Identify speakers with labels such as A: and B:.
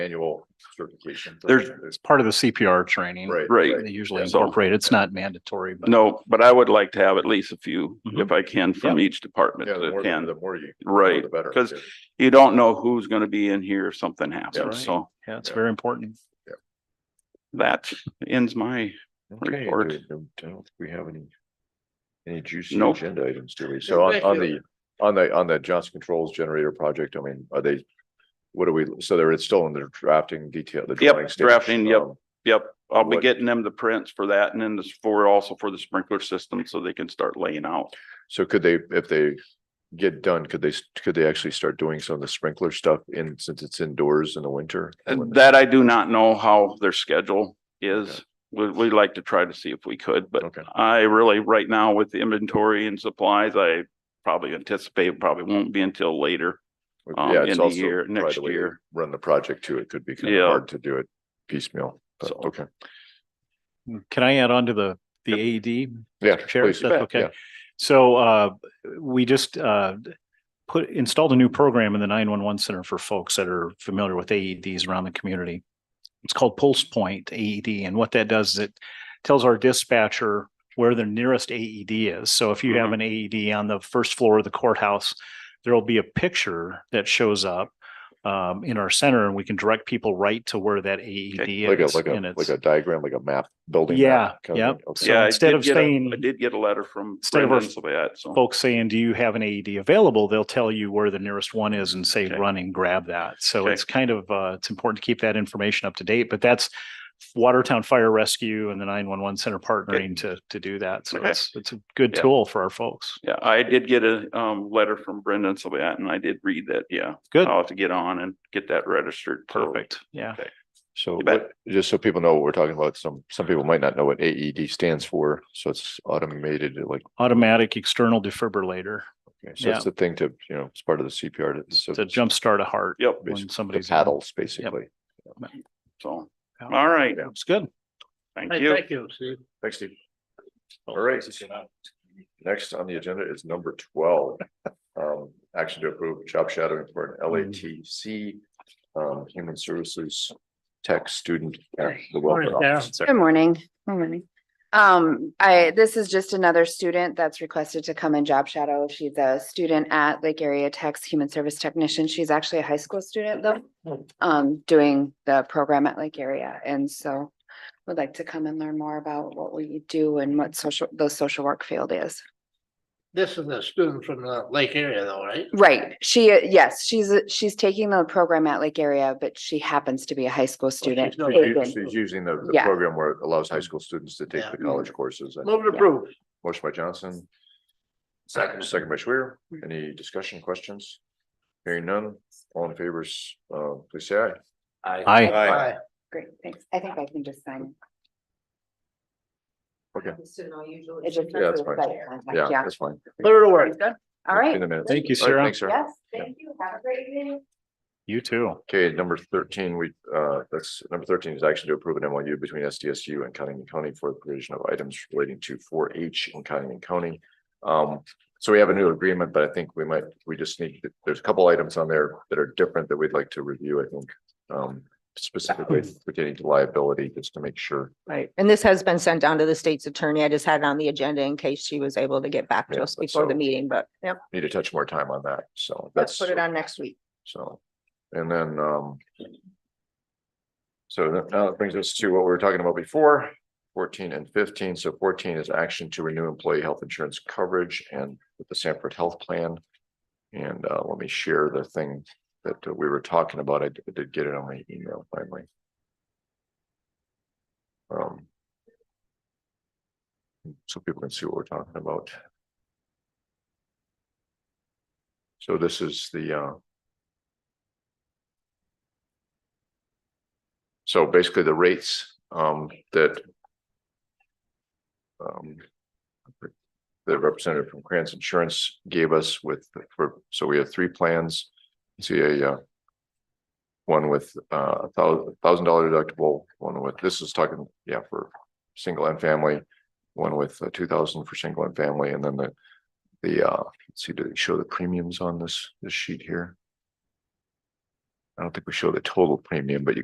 A: annual certification.
B: There's-
A: There's-
C: It's part of the CPR training.
A: Right.
B: Right.
C: They usually
B: So-
C: incorporate. It's not mandatory, but.
B: No, but I would like to have at least a few,
C: Mhm.
B: if I can, from each department
A: Mm-hmm. Yeah, the
B: that
A: more,
B: can.
A: the more you.
B: Right,
A: the better.
B: because you don't know who's gonna be in here if something
C: Right.
B: happens, so
C: Yeah, it's
A: Yeah.
C: very important.
B: that ends my,
D: Okay,
B: report.
D: do we- I don't think we have any, any juicy
B: Nope.
D: agenda items, do we?
A: So
D: So
A: on, on the, on the, on the Johnson Controls Generator project, I mean, are they, what do we, so they're, it's still in the drafting detail, the
B: Yep,
A: drawing stage.
B: drafting, yep.
A: um,
B: yep, I'll be
A: What-
B: getting them the prints for that and then this for also for the sprinkler system so they can start laying out.
A: So could they, if they get done, could they, s- could they actually start doing some of the sprinkler stuff in, since it's indoors in the winter?
B: And that I do not know how their schedule is. We, we like to try to see if we could, but
A: Okay,
B: I really, right now with the inventory and supplies, I probably anticipate probably won't be until later. um,
A: yeah, it's
B: in the
A: also
B: year-
A: probably
B: next
A: the way they
B: year.
A: Run the project too, it could be kind
B: Yeah.
A: of hard to do it piecemeal, but
B: So-
A: okay,
C: Can I add on to the, E the AED?
A: yeah.
C: Chair,
A: please.
C: if that's
A: Yeah.
C: okay. So uh, we just uh, put, installed a new program in the nine-one-one center for folks that are familiar with AEDs around the community. It's called Pulse Point AED, and what that does is it tells our dispatcher where the nearest AED is. So if you
A: Mm-hmm.
C: have an AED on the first floor of the courthouse, there will be a picture that shows up um, in our center, and we can direct people right to where that AED is.
A: Like a, like
C: and
A: a,
C: it's-
A: like a diagram, like a map, building.
C: Yeah,
A: map kind of
C: yep.
A: thing. Okay.
C: So
B: Yeah, I
C: instead
B: did
C: of
B: get a-
C: saying-
B: I did get a letter from
C: Instead of our
B: Brendan so that, so.
C: folks saying, do you have an AED available? They'll tell you where the nearest one is and say,
B: Okay.
C: run and grab that. So
B: Okay.
C: it's kind of, uh, it's important to keep that information up to date, but that's Watertown Fire Rescue and the nine-one-one center partnering to, to do that. So
B: Okay.
C: it's, it's a good
B: Yeah.
C: tool for our folks.
B: Yeah, I did get a um letter from Brendan so that, and I did read that, yeah.
C: Good.
B: I'll have to get on and get that registered. so-
C: Perfect. Yeah.
A: So
B: You bet.
A: what- just so people know what we're talking about, some, some people might not know what AED stands for. So it's automated, like,
C: Automatic external defibrillator
A: okay, so
C: Yeah.
A: it's the thing to, you know, it's part of the CPR. to- So
C: to
A: it's the
C: jumpstart a heart
B: Yep,
A: Basically,
C: when
A: the
C: somebody's. in-
A: paddles, basically.
B: so,
C: Yeah.
B: all right,
C: It's good.
B: thank you.
E: you, Steve.
A: Thanks, Steve.
C: Oh,
A: All right. Next on the agenda is number twelve. Um, action to approve job shadowing for an LATC um, human services tech student at the welfare
E: Morning, Sarah.
A: office.
F: Good morning. Good morning. Um, I, this is just another student that's requested to come and job shadow. She's a student at Lake Area Tech's Human Service Technician. She's actually a high school student though. Um, doing the program at Lake Area and so would like to come and learn more about what we do and what social, the social work field is.
E: This is a student from the lake area though, right?
F: Right, she, uh, yes, she's, a- she's taking the program at Lake Area, but she happens to be a high school student.
A: Oh,
E: not-
A: She's u-
F: Taken.
A: She's using the, the
F: Yeah.
A: program where it allows high school students to take
E: Yeah.
A: the college courses. and-
E: Move to approve.
A: Motion by Johnson. Second, second by Schwer. Any discussion, questions? Hearing none, all in favors, uh, please say aye.
C: I,
E: Aye.
F: Great, thanks. I think I can just sign.
A: Okay.
F: It just-
A: Yeah, that's fine. Yeah,
F: Yeah.
A: that's fine.
E: Put her to work.
F: All
A: In
F: right.
A: the minutes.
C: thank you,
A: All right,
C: Sarah.
A: Thanks, Sarah.
F: Yes, thank you. Have a great evening.
C: You too.
A: Okay, number thirteen, we, uh, that's, number thirteen is action to approve an MOU between SDSU and Cottington County for the provision of items relating to four H in Cottington County. Um, so we have a new agreement, but I think we might, we just need, there's a couple items on there that are different that we'd like to review, I think. Um, specifically pertaining to liability, just to make sure.
G: Right, and this has been sent down to the state's attorney. I just had it on the agenda in case she was able to get back
A: Yeah,
G: to us
A: but
G: before the
A: so-
G: meeting, but yep,
A: Need to touch more time on that, so that's.
G: let's put it on next week.
A: So, and then, um. So that now that brings us to what we were talking about before, fourteen and fifteen. So fourteen is action to renew employee health insurance coverage and with the Sanford Health Plan. And, uh, let me share the thing that uh, we were talking about. I d- I did get it on my email finally. Um. So people can see what we're talking about. So this is the, uh. So basically the rates um that. Um. The representative from Krantz Insurance gave us with, for, so we have three plans. See a uh. One with uh a thousand, thousand dollar deductible, one with, this is talking, yeah, for single and family. One with two thousand for single and family, and then the, the uh, let's see, do they show the premiums on this, this sheet here? I don't think we show the total premium, but you